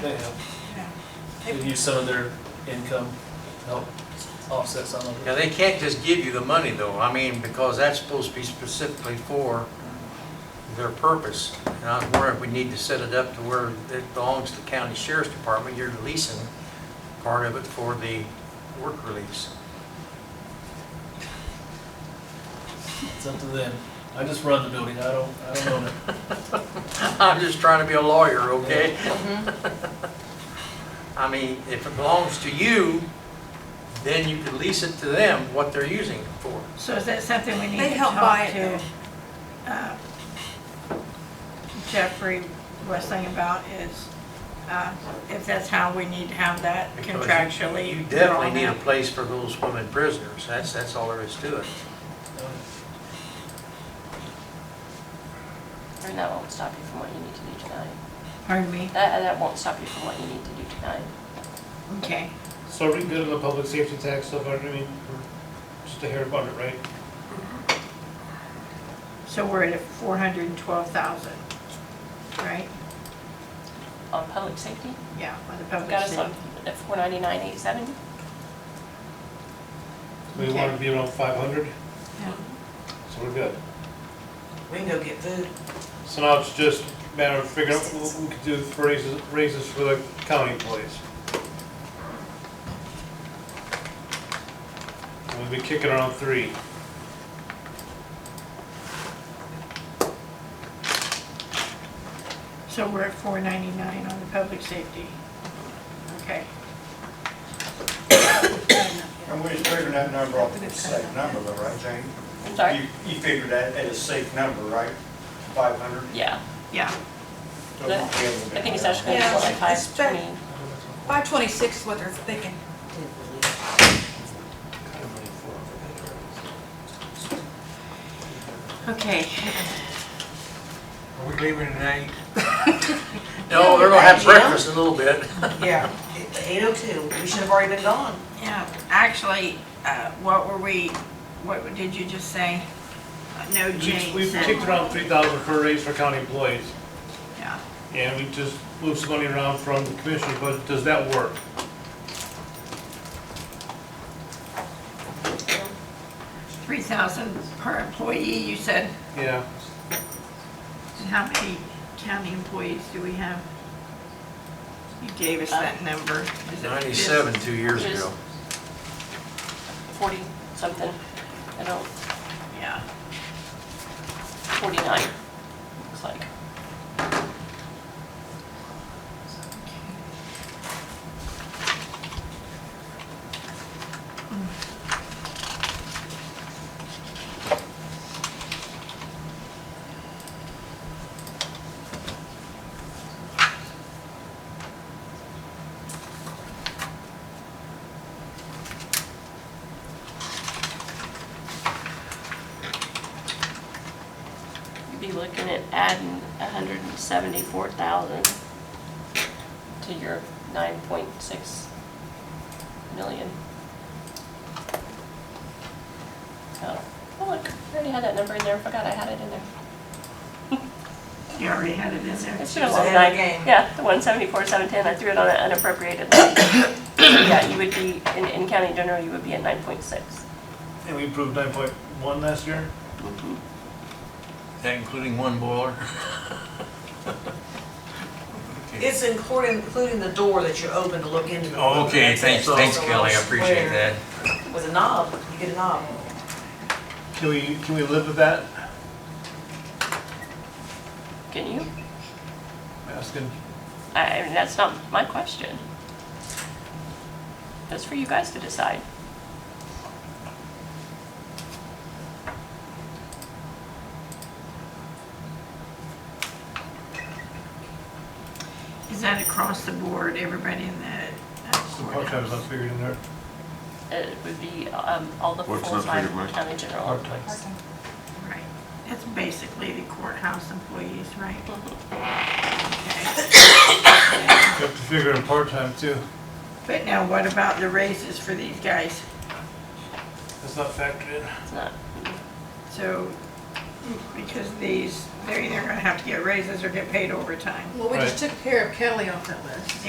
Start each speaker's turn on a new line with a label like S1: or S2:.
S1: They have, they've used some of their income to help offset some of
S2: Now,
S1: it.
S2: they can't just give you the money though, I mean, because that's supposed to be specifically for their purpose. And I was wondering if we need to set it up to where it belongs to the county sheriff's department, you're leasing part of it for the work release.
S1: It's up to them. I just run the building, I don't, I don't own it.
S2: I'm just trying to be a lawyer, okay? Mm-hmm. I mean, if it belongs to you, then you could lease it to them, what they're using it for.
S3: So is that something we need
S4: They
S3: to
S4: help buy
S3: talk
S4: it,
S3: to uh, Jeffrey Westling about is, uh, if that's how we need to have that
S2: Because
S3: contractually?
S2: You definitely
S3: drawn
S2: need a
S3: out.
S2: place for those women prisoners, that's, that's all there is to it.
S5: And that won't stop you from what you need to do tonight.
S3: Pardon me?
S5: That, that won't stop you from what you need to do tonight.
S3: Okay.
S6: So are we good on the public safety tax so far? I mean, we're just a hair about it, right?
S3: So we're at 412,000, right?
S5: On public safety,
S3: Yeah, on the
S5: I've
S3: public
S5: got us on
S3: safety.
S5: at four ninety-nine, eight seventy.
S6: We
S3: Okay.
S6: want to be around five hundred,
S3: Yeah.
S6: so we're good.
S4: We can go get food.
S6: So now it's just a matter of figuring out what we could do for raises, raises for the county employees. And We'll be kicking around three.
S3: So we're at 499 on the public safety. Okay.
S7: And we're just figuring that number off as a safe number, though, right, Jane?
S5: I'm sorry?
S7: You, you figured that at a safe number, right? Five hundred?
S5: Yeah,
S3: Yeah,
S5: I think it's actually
S4: Yeah,
S5: gonna be like
S4: it's
S5: five
S4: been-
S5: twenty.
S4: Five twenty-six is what they're thinking.
S3: okay.
S2: Are we leaving tonight? No, they're gonna have breakfast in a little bit.
S8: Yeah, eight oh two, we should have already been gone.
S3: Yeah, actually, uh, what were we, what did you just say? Uh, No
S6: We-
S3: change.
S6: We've
S3: then.
S6: kicked around three thousand for a raise for county employees,
S3: Yeah,
S6: and we just moved some money around from the commissioner, but does that work?
S3: three thousand per employee, you said.
S6: Yeah,
S3: And how many county employees do we have? You gave us
S4: Uh,
S3: that number. Is it-
S2: Ninety-seven, two years
S5: Just-
S2: ago.
S5: Forty something, I don't,
S3: Yeah,
S5: forty-nine, looks like. You'd be looking at adding hundred and seventy-four thousand to your nine point six million. Oh, oh, look, I already had that number in there, I forgot I had it in there.
S3: you already had it in there.
S5: It should have
S8: was ahead
S5: been nine,
S8: of the game.
S5: yeah, the one seventy-four, seven ten, I threw it on an unappropriated line. Yeah, you would be, in, in county general, you would be at nine point six.
S6: and we approved nine point one last year?
S8: Mm-hmm.
S2: That including one boiler?
S8: It's including, including the door that you open to look into. the room.
S2: Oh, Okay,
S8: That's
S2: thanks,
S8: it.
S2: thanks
S8: So
S2: Kelly, I
S8: it's
S2: appreciate that.
S8: square With a knob, you get a knob.
S6: Can we, can we live with that?
S5: Can you?
S6: Asking.
S5: I, I mean, that's not my question. That's for you guys to decide.
S3: Is that across the board, everybody in the uh,
S6: Some part-time's not
S3: courthouse?
S6: figured in there.
S5: It would be, um, all the
S9: What's not
S5: full-time
S9: figured, Mike?
S5: county general.
S1: Part-time.
S3: Right, that's basically the courthouse employees, right?
S5: Mhm.
S3: Okay.
S6: You have to figure in part-time too.
S3: But now what about the raises for these guys?
S6: That's not factored in.
S5: It's not,
S3: So, because these, they're either gonna have to get raises or get paid overtime.
S4: Well, we just took care of Kelly off that list.